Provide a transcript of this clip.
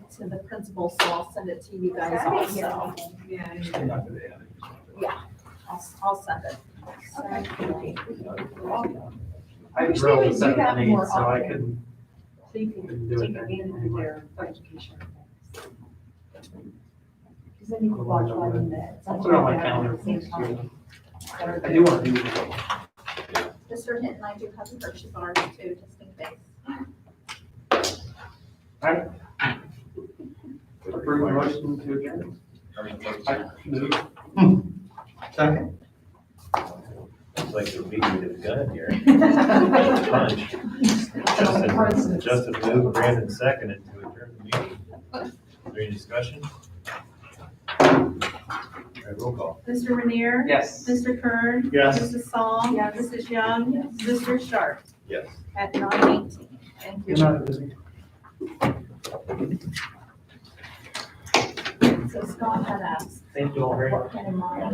to the principal, so I'll send it to you guys also. Yeah. Yeah, I'll, I'll send it. Okay. I wish they drilled would a do seven that and eight, more so I often. couldn't, So you can couldn't do take it then. advantage of anymore. their education. Because then you could watch one in the. I'll put it on my calendar. for at the same next time. year. I do want to do it. Mr. Hinton, I do have the purchase order too, just in case. Approve the motion to adjourn. I move. Second. It's like the beat me to the gun here. Punch. Justin Coincidence. Justin moved, Brandon seconded to adjourn the meeting. Is there any discussion? All right, roll call. Mr. Rainier? Yes. Mr. Kern? Yes. Mrs. Psalm? Yes. Mrs. Young? Mr. Sharp? Yes. At nine eighteen. Thank you. You're not busy. So Scott had asked, Thank you all very much. what kind of model